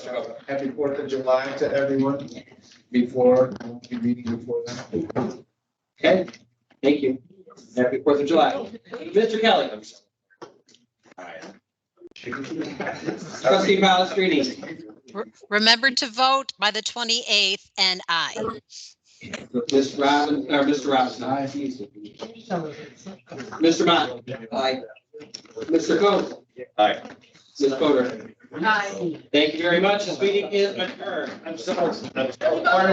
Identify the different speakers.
Speaker 1: Uh, Happy Fourth of July to everyone before, the meeting before that.
Speaker 2: Okay, thank you. Happy Fourth of July. Mr. Kelly. Trustee Palastrellini.
Speaker 3: Remember to vote by the 28th and I.
Speaker 2: Ms. Robin,
Speaker 1: uh,
Speaker 2: or Mr. Robinson. aye. Mr. Mott. Aye. Mr. Coe.
Speaker 4: Aye.
Speaker 2: Ms. Fodor. Thank you very much. This meeting is adjourned. I'm sorry.